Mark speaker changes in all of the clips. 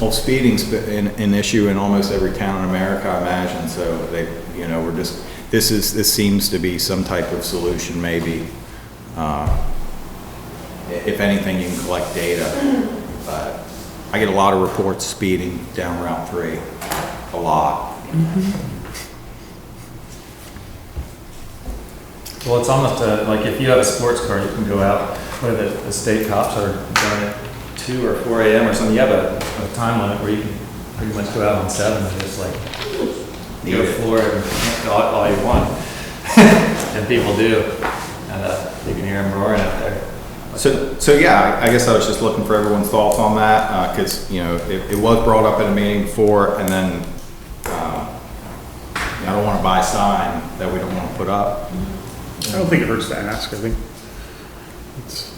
Speaker 1: Well, speeding's been an, an issue in almost every town in America, I imagine, so they, you know, we're just, this is, this seems to be some type of solution, maybe. Uh, i- If anything, you can collect data, but I get a lot of reports speeding down Route 3, a lot.
Speaker 2: Well, it's almost a, like if you have a sports car, you can go out where the, the state cops are done at two or four AM or something. You have a, a time limit where you can pretty much go out on seven and just like go
Speaker 1: Need it.
Speaker 2: floor it all, all you want. And people do. And, uh, you can hear them roaring out there.
Speaker 1: So, so yeah, I I guess I was just looking for everyone's thoughts on that, because, you know, it, it was brought up at a meeting before, and then, uh, you know, I don't want to buy a sign that we don't want to put up.
Speaker 3: I don't think it hurts to ask, I think. it's-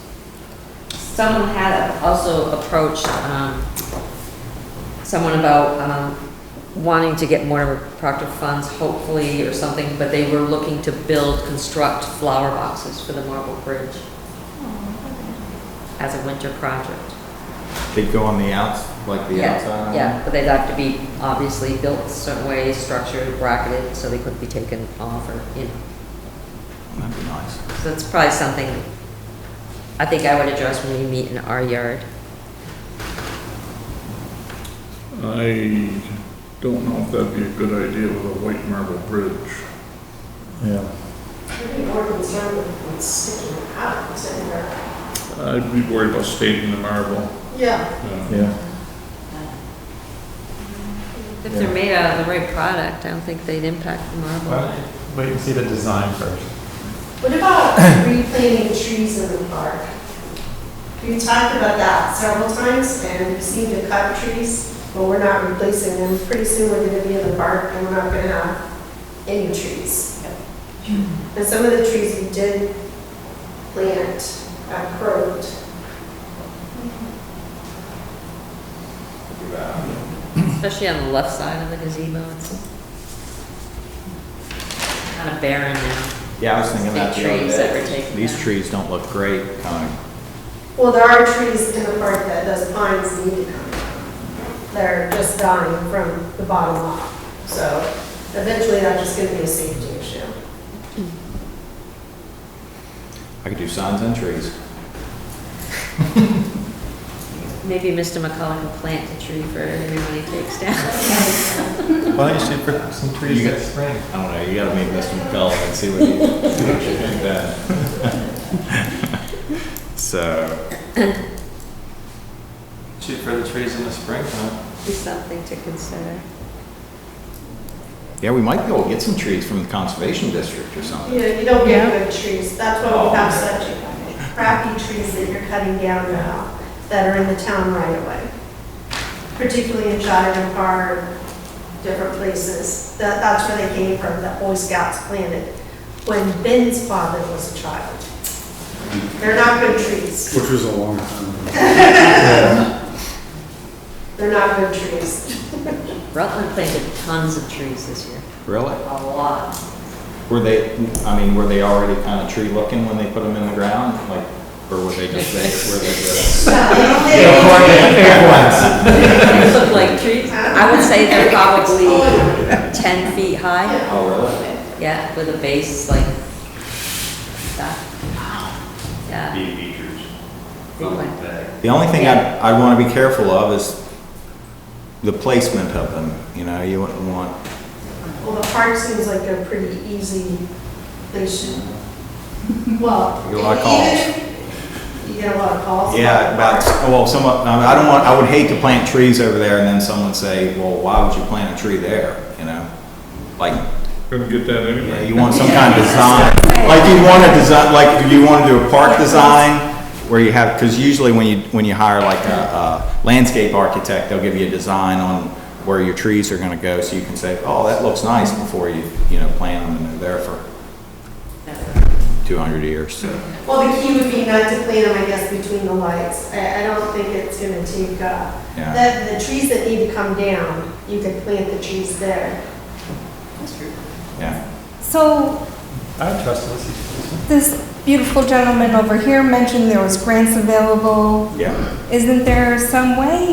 Speaker 4: Someone had also approached, um, someone about, um, wanting to get more Proctor funds, hopefully, or something, but they were looking to build, construct flower boxes for the Marble Bridge as a winter project.
Speaker 1: They go on the outs, like the
Speaker 4: Yeah,
Speaker 1: outside.
Speaker 4: Yeah, but they'd have to be obviously built a certain way, structured, bracketed, so they couldn't be taken off or, you know.
Speaker 1: That'd be nice.
Speaker 4: So that's probably something I think I would address when we meet in our yard.
Speaker 5: I don't know if that'd be a good idea with a white marble bridge.
Speaker 2: Yeah.
Speaker 6: I'd be more concerned with sticking out, is that where?
Speaker 5: I'd be worried about staking the marble.
Speaker 6: Yeah.
Speaker 5: Yeah.
Speaker 2: Yeah.
Speaker 4: If they're made out of the right product, I don't think they'd impact the marble.
Speaker 2: Wait and see the design first.
Speaker 6: What about replanting trees in the park? We talked about that several times, and we seem to cut trees, but we're not replacing them. Pretty soon, we're gonna be in the park, and we're not gonna have any trees. And some of the trees we did plant, got crowed.
Speaker 1: That'd be bad.
Speaker 4: Especially on the left side of the gazebo, it's kind of barren now.
Speaker 1: Yeah, I was thinking that
Speaker 4: Big
Speaker 1: the other
Speaker 4: trees that were
Speaker 1: day.
Speaker 4: taken
Speaker 1: These
Speaker 4: down.
Speaker 1: trees don't look great, kind of.
Speaker 6: Well, there are trees in the park that those pines need to come down. They're just dying from the bottom up. So eventually that's just gonna be a safety issue.
Speaker 1: I could do signs and trees.
Speaker 4: Maybe Mr. McCullough can plant a tree for everyone he takes down.
Speaker 2: Why don't you shoot for some trees
Speaker 1: You
Speaker 2: next spring?
Speaker 1: I don't know, you gotta meet Mr. McCullough and see what he, what you think then. So,
Speaker 2: Shoot for the trees in the spring, huh?
Speaker 4: Be something to consider.
Speaker 1: yeah, we might be able to get some trees from the conservation district or something.
Speaker 6: You know, you don't get good trees. That's why we have such crappy trees that you're cutting down now that are in the town right away. Particularly in Cheyenne Park, different places. That, that's where they came from, that Boy Scouts planted when Ben's father was a child. They're not good trees.
Speaker 3: Which was a long time ago.
Speaker 6: They're not good trees.
Speaker 4: Rutland planted tons of trees this year,
Speaker 1: Really?
Speaker 4: a lot.
Speaker 1: Were they, I mean, were they already kind of tree looking when they put them in the ground? Like, or were they just, they, were they just?
Speaker 4: They look like trees. I would say they're probably 10 feet high.
Speaker 1: Oh, really?
Speaker 4: Yeah, with a base like that. Yeah. Bee Oh, features.
Speaker 1: The only thing I'd, I'd want to be careful of is the placement of them, you know, you wouldn't want,
Speaker 6: Well, the park seems like a pretty easy, they should, well.
Speaker 1: You get a lot of calls.
Speaker 6: even- You get a lot of calls.
Speaker 1: yeah, about, well, someone, I don't want, I would hate to plant trees over there and then someone say, well, why would you plant a tree there, you know? Like,
Speaker 5: Couldn't get that
Speaker 1: Yeah,
Speaker 5: anyway.
Speaker 1: you want some kind of design, like you want a design, like you want to do a park design where you have, because usually when you, when you hire like a, a landscape architect, they'll give you a design on where your trees are gonna go, so you can say, oh, that looks nice before you, you know, plant them and they're there for two hundred years, so.
Speaker 6: Well, the key would be not to plant them, I guess, between the lights. I, I don't think it's gonna take, uh,
Speaker 1: Yeah.
Speaker 6: the, the trees that need to come down, you could plant the trees there.
Speaker 1: Yeah,
Speaker 7: So
Speaker 2: I trust this.
Speaker 7: this beautiful gentleman over here mentioned there was grants available.
Speaker 1: yeah.
Speaker 7: Isn't there some way